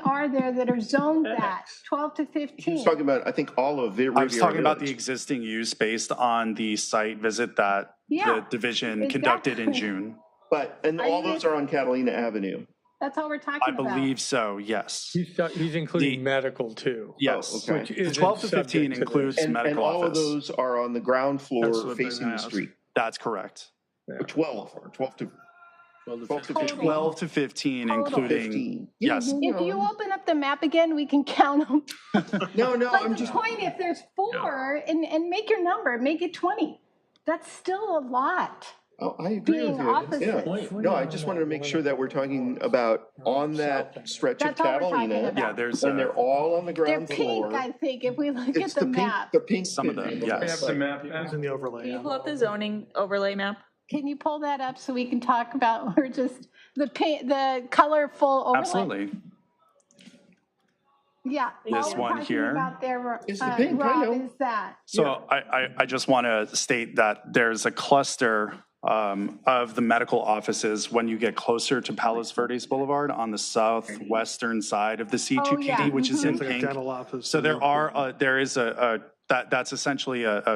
many are there that are zoned that, 12 to 15? He's talking about, I think, all of Riviera Hmm. I was talking about the Village. existing use based on the site visit that Yeah, the division conducted in exactly. June. But, and Are all you- those are on Catalina Avenue. That's all we're I talking about. believe so, yes. He's, ta- he's including The- medical too. Yes. Oh, okay. which The isn't 12 to subject 15 this. includes And, and medical all of office. those are on the ground floor That's what they're facing gonna the ask. street. That's correct. Or 12, or 12 to Twelve to Total. 12 to 15, Total. including, 15. yes. If you open up the map again, we can count them. No, no, I'm But the just, point, if there's four, and, and make your number, make it 20. That's still a lot. oh, I agree being with you. Yeah. opposite. No, I just wanted to make sure that we're talking about on that stretch of That's all we're talking Catalina. about. Yeah, there's, And uh, they're all on the They're ground pink, floor. I think, if we look at It's the the pink, map. the pink. Some of them, picture. yes. It's Yeah, like- in the overlay. Can you pull up the zoning overlay map? Can you pull that up so we can talk about, or just the pink, the colorful overlay? Absolutely. Yeah. This all we're one talking here. About there, It's the uh, pink, I Rob, know. is that. So I, I, I just want to state that there's a cluster um, of the medical offices when you get closer to Palos Verdes Boulevard on the southwestern side of the Oh, C2KD, yeah. which is in It's like a pink. dental office. So there are, uh, there is a, a that that's essentially a, a I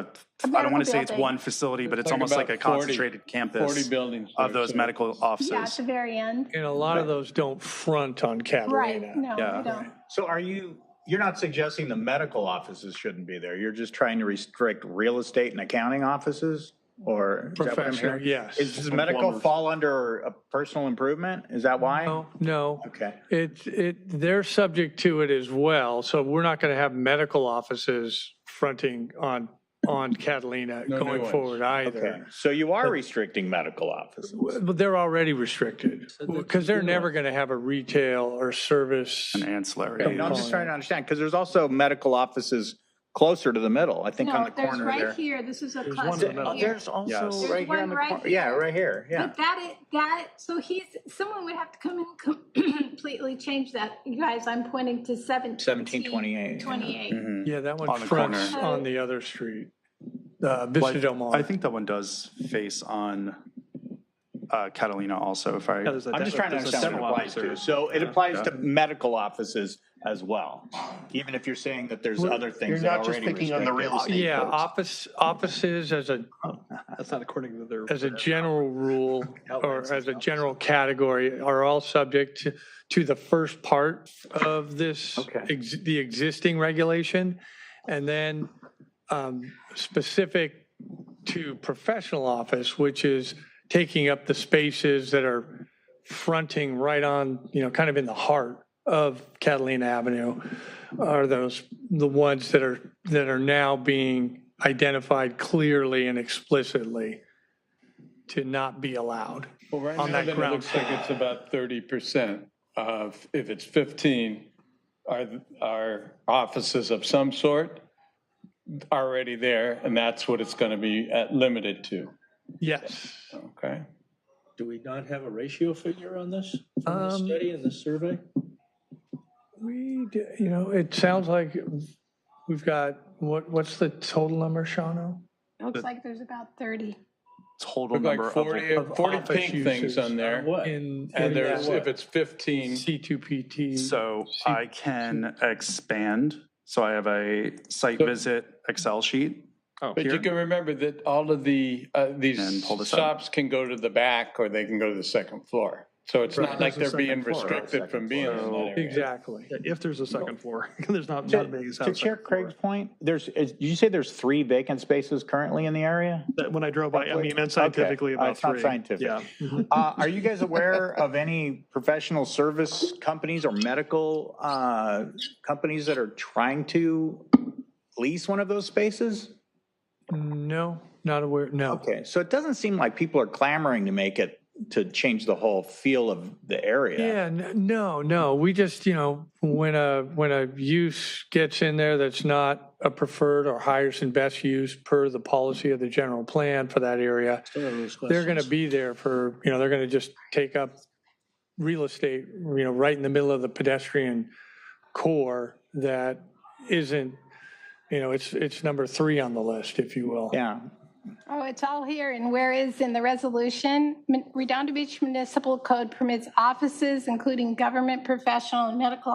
medical don't want to say it's building. one facility, but it's Like almost like a about 40 concentrated campus 40 buildings. of there, those so- medical Yeah, at offices. the very end. And a lot of those don't front on Right, Catalina. no, Yeah. we don't. So are you, you're not suggesting the medical offices shouldn't be there? You're just trying to restrict real estate and accounting offices? Or is that what I'm Professional, hearing? yes. Is does medical fall under a personal improvement? Is that why? No, no. Okay. It, it, they're subject to it as well. So we're not going to have medical offices fronting on, on Catalina No going nuance. forward Okay. either. So you are restricting medical offices? But they're already restricted because they're never going to have a retail or service. and ancillary. No, I'm just trying to understand, because there's also medical offices closer to the middle, I think on No, the there's corner right there. here, this is a There's one in the cluster middle. here. There's also Yes. right There's here on one the right corner. Yeah, here. right here, yeah. But that is, that, so he's, someone would have to come in and completely change that. You guys, I'm pointing to 17. 1728, yeah. 28. Mhm. Yeah, that On one the fronts corner. on the other street, uh, But Vista Del Mar. I think that one does face on uh, Catalina also, if I. I'm just trying to understand what it applies to. So it applies to medical offices as well, even if you're saying that there's other You're things not that just already picking on the restricted. real estate. Yeah, folks. office, offices as a, That's not according to their. as a general rule or as a general category are all subject to, to the first part of this, ex- the existing regulation. And then um, specific to professional office, which is taking up the spaces that are fronting right on, you know, kind of in the heart of Catalina Avenue are those, the ones that are, that are now being identified clearly and explicitly to not be allowed. Well, right on now, that then it ground looks like it's about 30% of, if it's 15, are, are offices of some sort already there, and that's what it's going to be uh, limited to, Yes. okay? Do we not have a ratio figure on this, the Um, study and the survey? We, d- you know, it sounds like we've got, what, what's the total number, Shawno? Looks Mm-hmm. like there's about 30. Total Look like number of 40, of 40 office pink things uses. on there. In, in And there's, if that it's 15, C2PT. So I can expand. So I have a site visit Excel sheet. Oh, but you can remember that all of the, uh, And these pull this up. shops can go to the back or they can go to the second floor. So it's not like they're being restricted from being in that area. Exactly. If there's a second floor, there's not, not To Vegas to house. Chair Craig's point, there's, is- did you say there's three vacant spaces currently in the area? That- When I drove by, I mean, and Okay. scientifically Oh, about it's not three. scientific. Yeah. Uh, Are you guys aware of any professional service companies or medical uh, companies that are trying to lease one of those spaces? No, not aware, no. Okay, so it doesn't seem like people are clamoring to make it, to change the whole feel of the area. Yeah, n- no, no, we just, you know, when a, when a use gets in there that's not a preferred or highest and best use per the policy of the general plan for that area, they're going to be there for, you know, they're going to just take up real estate, you know, right in the middle of the pedestrian core that isn't, you know, it's, it's number three on the list, if you will. Yeah, Oh, it's all here, and where is in the resolution? Min- Redondo Beach Municipal Code permits offices, including government, professional, and medical